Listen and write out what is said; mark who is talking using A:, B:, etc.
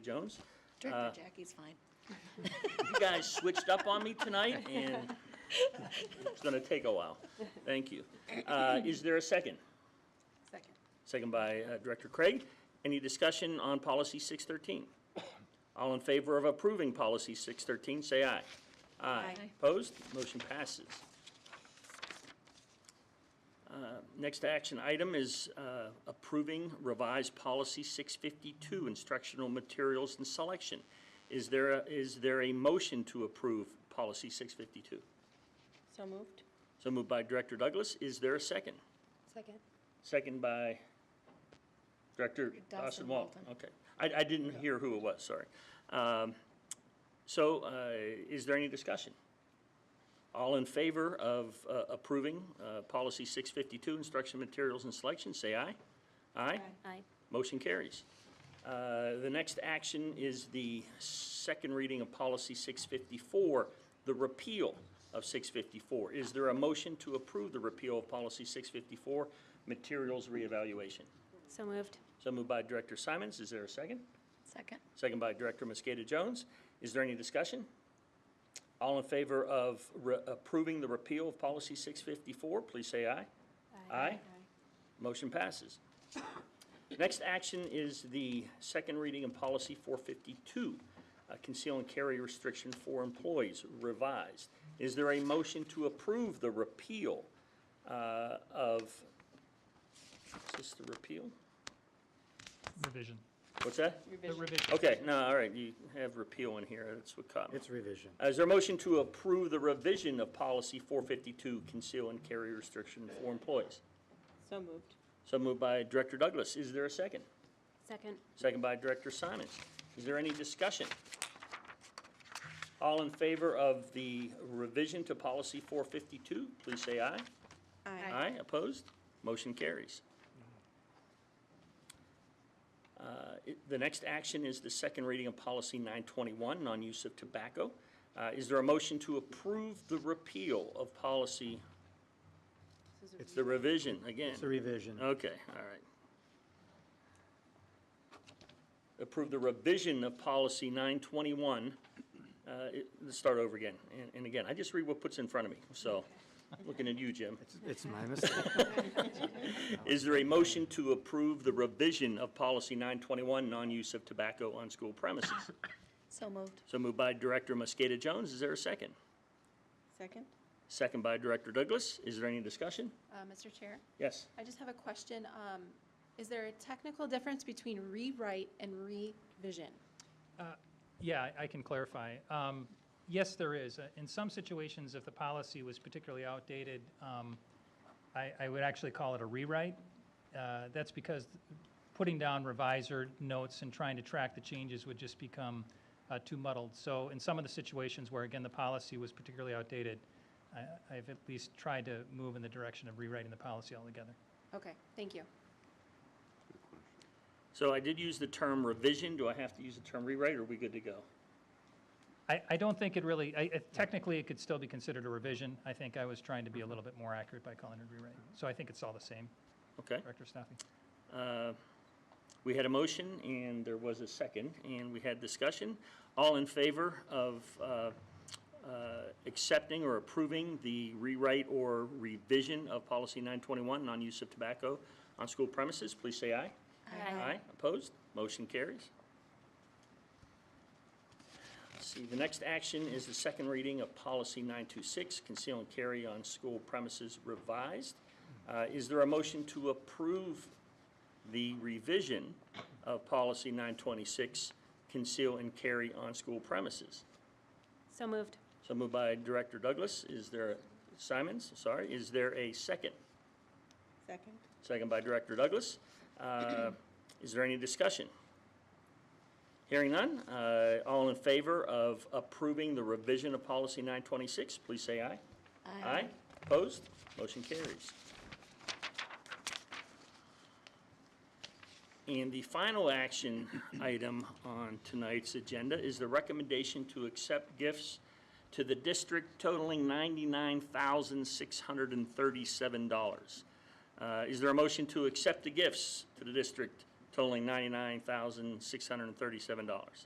A: Jones. Uh,
B: Director Jackie's fine.
A: You guys switched up on me tonight, and it's going to take a while. Thank you. Uh, Is there a second?
B: Second.
A: Second by uh, Director Craig. Any discussion on Policy 613? All in favor of approving Policy 613, say aye.
B: Aye.
A: Opposed? Motion passes. Uh, Next action item is uh, approving revised Policy 652, Instructional Materials and Selection. Is there a- is there a motion to approve Policy 652?
C: So moved.
A: So moved by Director Douglas. Is there a second?
C: Second.
A: Second by Director Dawson
B: Dawson
A: Walton.
B: Walton.
A: Okay. I, I didn't hear who it was, sorry. Um, So uh, is there any discussion? All in favor of uh, approving uh, Policy 652, Instruction Materials and Selection, say aye. Aye?
C: Aye.
A: Motion carries. Uh, The next action is the second reading of Policy 654, the repeal of 654. Is there a motion to approve the repeal of Policy 654, materials reevaluation?
C: So moved.
A: So moved by Director Simons. Is there a second?
B: Second.
A: Second by Director Mosqueta Jones. Is there any discussion? All in favor of re- approving the repeal of Policy 654, please say aye. Aye. Motion passes. Next action is the second reading of Policy 452, uh, Conceal and Carry Restriction for Employees Revised. Is there a motion to approve the repeal uh, of, is this the repeal?
D: Revision.
A: What's that?
D: The revision.
A: Okay, no, all right, you have repeal in here, that's what caught me.
E: It's revision.
A: Is there a motion to approve the revision of Policy 452, Conceal and Carry Restriction for Employees?
C: So moved.
A: So moved by Director Douglas. Is there a second?
C: Second.
A: Second by Director Simons. Is there any discussion? All in favor of the revision to Policy 452, please say aye.
B: Aye.
A: Aye, opposed? Motion carries. Uh, it- The next action is the second reading of Policy 921, Non-Use of Tobacco. Uh, Is there a motion to approve the repeal of policy,
E: It's
A: the revision, again?
E: It's a revision.
A: Okay, all right. Approve the revision of policy 921. Uh, it- Let's start over again. And- And again, I just read what puts in front of me, so, looking at you, Jim.
E: It's- It's my mistake.
A: Is there a motion to approve the revision of policy 921, non-use of tobacco on school premises?
B: So moved.
A: So moved by Director Mosqueta Jones. Is there a second?
C: Second.
A: Second by Director Douglas. Is there any discussion?
F: Uh, Mr. Chair,
A: Yes.
F: I just have a question. Um, Is there a technical difference between rewrite and revision?
D: Yeah, I- I can clarify. Um, Yes, there is. Uh, In some situations, if the policy was particularly outdated, um, I I would actually call it a rewrite. Uh, That's because putting down revisor notes and trying to track the changes would just become uh, too muddled. So in some of the situations where, again, the policy was particularly outdated, I- I've at least tried to move in the direction of rewriting the policy altogether.
F: Okay, thank you.
A: So I did use the term revision. Do I have to use the term rewrite, or are we good to go?
D: I, I don't think it really, I- I- technically, it could still be considered a revision. I think I was trying to be a little bit more accurate by calling it a rewrite. So I think it's all the same,
A: Okay.
D: Director Staffy.
A: Uh, We had a motion, and there was a second, and we had discussion. All in favor of uh, uh, accepting or approving the rewrite or revision of Policy 921, non-use of tobacco on school premises, please say aye. Opposed? Motion carries. Let's See, the next action is the second reading of Policy 926, Conceal and Carry on School Premises Revised. Uh, Is there a motion to approve the revision of Policy 926, Conceal and Carry on School Premises?
C: So moved.
A: So moved by Director Douglas. Is there, Simons, sorry, is there a second?
C: Second.
A: Second by Director Douglas. Uh, Is there any discussion? Hearing none, uh, all in favor of approving the revision of Policy 926, please say aye. Aye. Opposed? Motion carries. And the final action item on tonight's agenda is the recommendation to accept gifts to the district totaling $99,637. Uh, Is there a motion to accept the gifts to the district totaling $99,637.